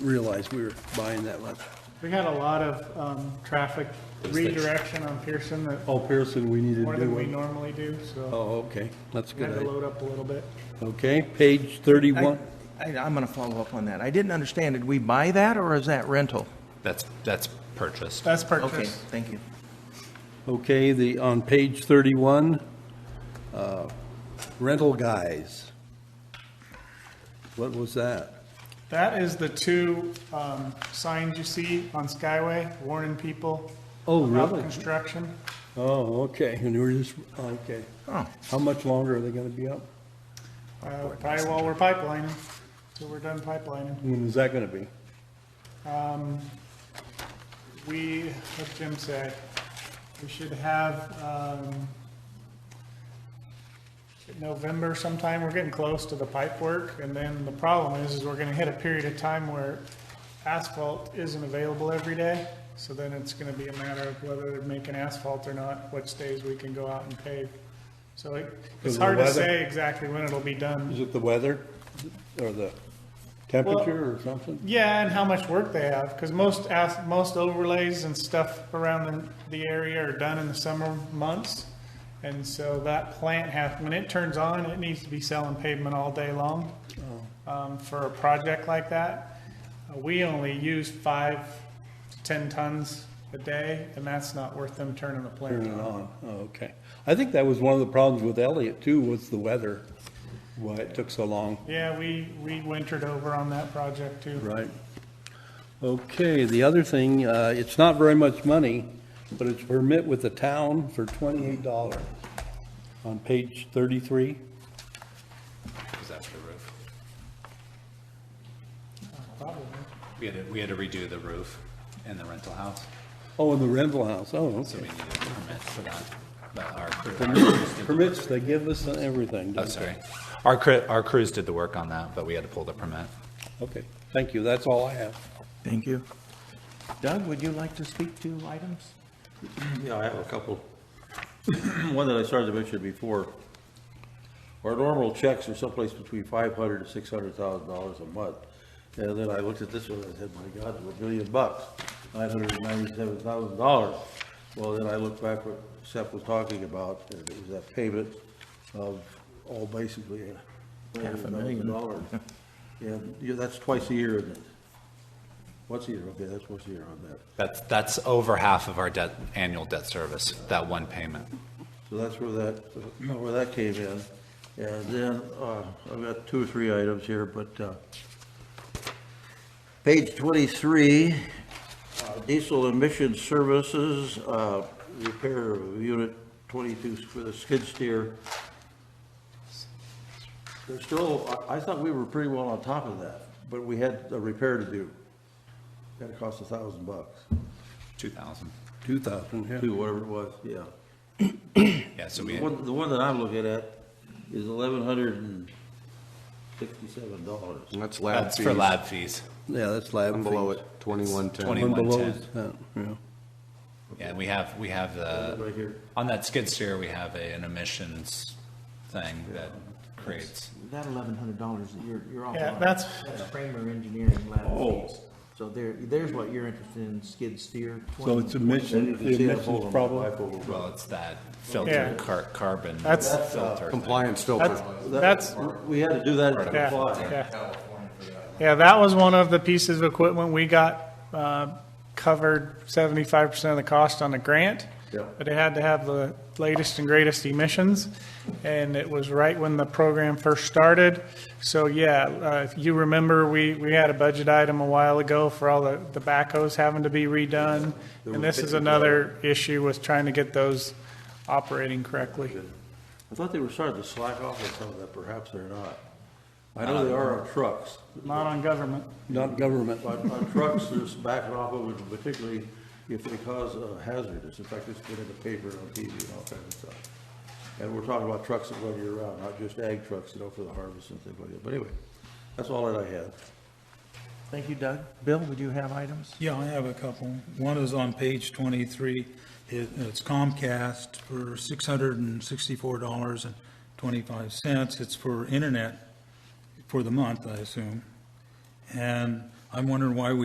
realize we were buying that much. We had a lot of um, traffic redirection on Pearson that, Oh, Pearson, we needed more to do than we one. normally do, so Oh, okay, that's a we had good to idea. load up a little bit. Okay, page 31, I, I'm going to follow up on that. I didn't understand, did we buy that or is that rental? That's, that's purchased. That's Okay, purchase. thank you. okay, the, on page 31, uh, rental guys. What was that? That is the two um, signs you see on Skyway warning people Oh, about really? construction. Oh, okay, and we're just, okay. Oh, How much longer are they going to be up? Uh, Probably while we're pipelining, till we're done pipelining. When is that going to be? We, what did Jim say, we should have, um, November sometime, we're getting close to the pipe work, and then the problem is, is we're gonna hit a period of time where asphalt isn't available every day, so then it's gonna be a matter of whether they're making asphalt or not, which days we can go out and pave. So it, Because it's of hard to the weather? say exactly when it'll be done. Is it the weather or the temperature or something? Yeah, and how much work they have, because most, as- most overlays and stuff around the, the area are done in the summer months. And so that plant has, when it turns on, it needs to be selling pavement all day long, um, for a project like that. Uh, We only use five to ten tons a day, and that's not worth them turning the Turn plant it on. on, Oh, okay. I think that was one of the problems with Elliott too, was the weather, why it took so long. Yeah, we, we wintered over on that project too. Right. Okay, the other thing, uh, it's not very much money, but it's permit with the town for twenty-eight dollars on page thirty-three. Is that for the roof? Probably. We had to, we had to redo the roof in the rental house, Oh, and the rental house, oh, so okay. we needed a permit for that. But our crew, Permits they give us and everything, oh, don't sorry. Our crew, our crews did the work on that, but we had to pull the permit. they? Okay, thank you, that's all I have. thank you. Doug, would you like to speak to items? Yeah, I have a couple. One that I started to mention before. Our normal checks are someplace between five hundred to six hundred thousand dollars a month. And then I looked at this one and I said, my God, we're a billion bucks, nine hundred and ninety-seven thousand dollars. Well, then I looked back what Seth was talking about, and it was that payment of all basically Half a million million. dollars. And yeah, that's twice a year, isn't it? Once a year, okay, that's once a year on that. That's, that's over half of our debt, annual debt service, that one payment. So that's where that, where that came in. And then, uh, I've got two or three items here, but, uh, page twenty-three, uh, diesel emission services, uh, repair of unit twenty-two for the skid steer. There's still, I, I thought we were pretty well on top of that, but we had a repair to do. That cost a thousand bucks, Two thousand. Two thousand, yeah. two, whatever it was, yeah. Yeah, so we, The one, the one that I'm looking at is eleven hundred and sixty-seven dollars. And That's lab that's for fees. lab fees, Yeah, that's lab One fees. below it, 2110. One below 2110. is that, yeah. Yeah, and we have, we have Right the, here. on that skid steer, we have a, an emissions thing that creates. That eleven hundred dollars that you're, you're off Yeah, that's, That's Kramer Engineering Oh. lab fees. So there, there's what you're interested in, skid steer. So it's emission, the emissions problem? Well, it's that Yeah. filter car- carbon That's- filter. thing. Compliance that's, filter. that's, We had to do that to Yeah, comply. yeah. Yeah, that was one of the pieces of equipment we got, uh, covered seventy-five percent of the cost on the grant. Yeah. But it had to have the latest and greatest emissions, and it was right when the program first started. So, yeah, uh, if you remember, we, we had a budget item a while ago for all the, the backhoes having to be redone. And this is another issue with trying to get those operating correctly. I thought they were starting to slack off on some of that, perhaps they're not. I Uh, know they are on trucks. Not on government. Not government. On, on trucks, they're just backing off of it, particularly if they cause uh, hazardous. In fact, it's been in the paper and on TV and all kinds of stuff. And we're talking about trucks that run year round, not just ag trucks, you know, for the harvest and things like that. But anyway, that's all that I had. Thank you, Doug. Bill, would you have items? Yeah, I have a couple. One is on page 23. It- It's Comcast for $664.25. It's for internet for the month, I assume. And I'm wondering why we